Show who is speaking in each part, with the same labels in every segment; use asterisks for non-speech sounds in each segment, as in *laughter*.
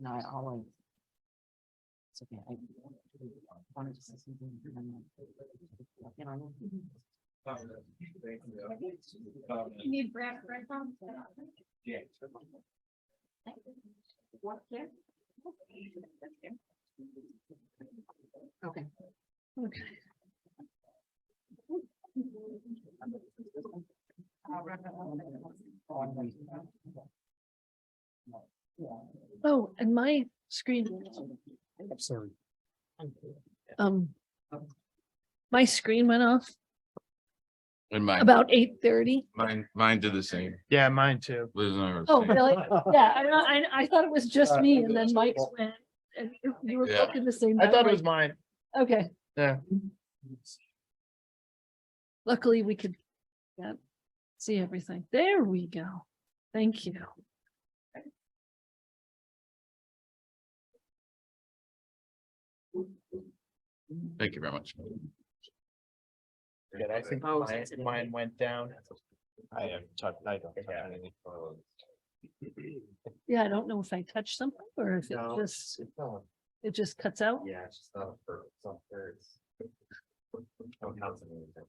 Speaker 1: No, I always. It's okay. I wanted to say something. and I'm like, You know.
Speaker 2: You need Brad, Brad, Tom? What, there?
Speaker 1: Okay.
Speaker 3: Oh, and my screen,
Speaker 4: I'm sorry.
Speaker 3: um. My screen went off
Speaker 5: And mine,
Speaker 3: about eight thirty.
Speaker 5: mine, mine did the same.
Speaker 4: Yeah, mine
Speaker 5: *laughs*
Speaker 4: too.
Speaker 5: Liz and I were
Speaker 3: Oh,
Speaker 5: saying-
Speaker 3: really? Yeah, I, know- I, I thought it was just
Speaker 4: Uh,
Speaker 3: me and then Mike's
Speaker 4: well-
Speaker 3: went. And you- you were
Speaker 5: Yeah.
Speaker 3: looking the same.
Speaker 4: I
Speaker 3: way.
Speaker 4: thought it
Speaker 3: I'm
Speaker 4: was
Speaker 3: like,
Speaker 4: mine.
Speaker 3: Okay, luckily we could. Yep, see everything. There we go. Thank you.
Speaker 5: Thank you very much.
Speaker 4: Yeah, I think
Speaker 1: Oh,
Speaker 4: mine,
Speaker 1: sensitive.
Speaker 4: mine went down.
Speaker 6: I am, touch- I don't. touch
Speaker 4: Yeah.
Speaker 6: anything.
Speaker 3: Yeah, I don't know if I touched something or if it
Speaker 6: No,
Speaker 3: just,
Speaker 6: it's not-
Speaker 3: it just cuts out.
Speaker 6: Yeah, it's just not a per- it's not fair, it's- don't count something like that.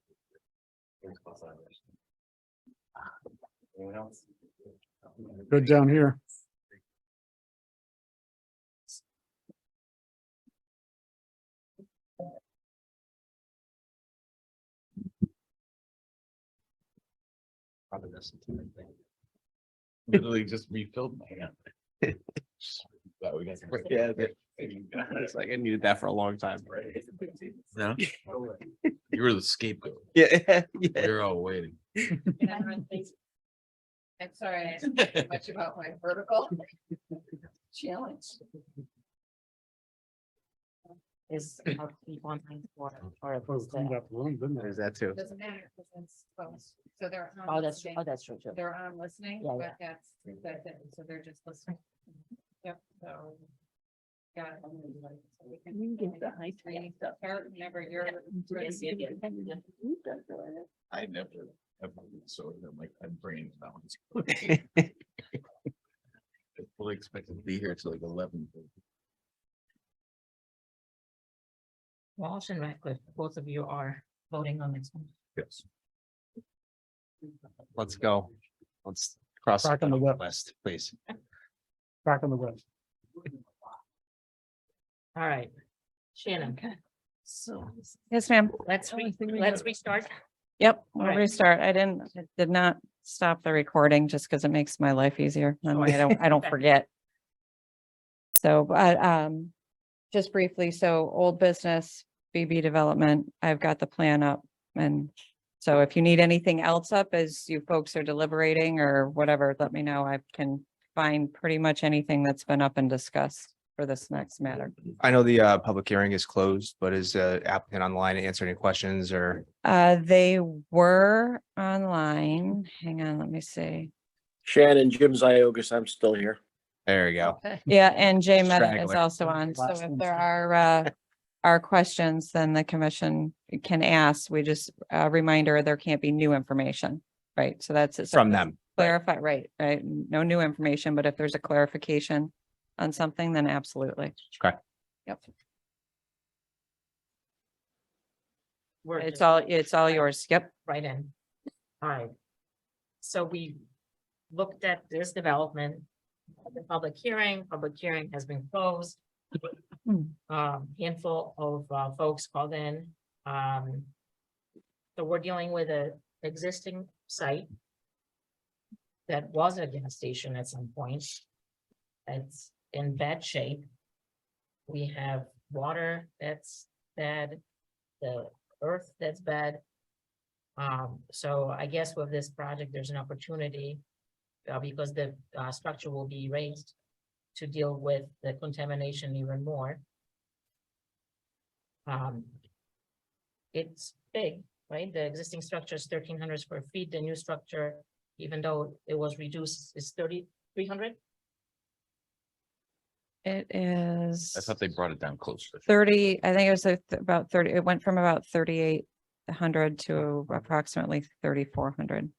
Speaker 6: Here's my side. Anyone else?
Speaker 4: Good down here.
Speaker 6: Probably this entire thing.
Speaker 5: Literally just refilled my hand. *laughs* Thought we got some-
Speaker 6: Yeah,
Speaker 5: It's
Speaker 6: like I needed that for a long time. Right.
Speaker 5: No, you were the scapegoat. *laughs*
Speaker 6: Yeah,
Speaker 5: We were all waiting.
Speaker 1: I'm sorry, I didn't think much about my vertical challenge. Is how to keep one line for, or if it's the-
Speaker 6: There's that too.
Speaker 2: Doesn't matter, because it's close. So they're. on
Speaker 1: oh, that's,
Speaker 2: listening.
Speaker 1: oh, that's true, too.
Speaker 2: They're on listening,
Speaker 1: Yeah,
Speaker 2: but
Speaker 1: yeah.
Speaker 2: that's, that's it. So they're just listening. Yep, so. Yeah. We
Speaker 3: You can get the high
Speaker 2: Training
Speaker 3: tech stuff.
Speaker 2: Start whenever you're. ready.
Speaker 3: Yes, you can. You can do it.
Speaker 5: I never, I've so I'm like, I'm brain balance. *laughs* Fully expected to be here till like eleven.
Speaker 1: Walsh and Ratcliffe, both of you are voting on this one.
Speaker 5: Yes.
Speaker 6: Let's go. Let's cross.
Speaker 4: Back on the web,
Speaker 6: List, please.
Speaker 4: back on the web.
Speaker 1: All right. Shannon,
Speaker 3: Okay, so.
Speaker 7: Yes, ma'am.
Speaker 1: let's,
Speaker 3: Only
Speaker 1: re-
Speaker 3: thing we
Speaker 1: let's
Speaker 3: have-
Speaker 1: restart.
Speaker 7: Yep,
Speaker 1: All right.
Speaker 7: we'll restart. I didn't, I did not stop the recording just because it makes my life easier.
Speaker 1: Oh,
Speaker 7: That way I don't,
Speaker 1: *laughs*
Speaker 7: I don't
Speaker 1: Okay.
Speaker 7: forget. So, but, um, just briefly, so old business, BB development, I've got the plan up. And so if you need anything else up as you folks are deliberating or whatever, let me know. I can find pretty much anything that's been up and discussed for this next matter.
Speaker 6: I know the uh public hearing is closed, but is uh applicant online to answer any questions or?
Speaker 7: Uh, they were online. Hang on, let me see.
Speaker 8: Shannon, Jim Ziogas, I'm still here.
Speaker 6: There you go.
Speaker 3: Okay.
Speaker 7: Yeah, and Jay Meta is
Speaker 6: straggler.
Speaker 7: also on, so
Speaker 4: Last
Speaker 7: if
Speaker 4: one's
Speaker 7: there
Speaker 4: here.
Speaker 7: are, uh, are questions, then the commission can ask, we just, a reminder, there can't be new information, right? So that's it. So
Speaker 6: From
Speaker 7: just
Speaker 6: them.
Speaker 7: Clarify, right, right, no new information, but if there's a clarification on something, then absolutely.
Speaker 6: Okay.
Speaker 7: Yep,
Speaker 1: We're
Speaker 7: it's
Speaker 1: just
Speaker 7: all, it's all yours, yep.
Speaker 1: Right in. All right. So we looked at this development, the public hearing, public hearing has been closed.
Speaker 7: Hmm.
Speaker 1: Um, handful of uh, folks called in, um. So we're dealing with a existing site. That was a gas station at some point. It's in bad shape. We have water that's bad, the earth that's bad. Um, so I guess with this project, there's an opportunity, uh, because the, uh, structure will be raised to deal with the contamination even more. Um, it's big, right? The existing structure is thirteen hundred square feet, the new structure, even though it was reduced, is thirty-three hundred?
Speaker 7: It is.
Speaker 5: I thought they brought it down closer.
Speaker 7: thirty, I think it was a th- about thirty, it went from about thirty-eight hundred to approximately thirty-four hundred.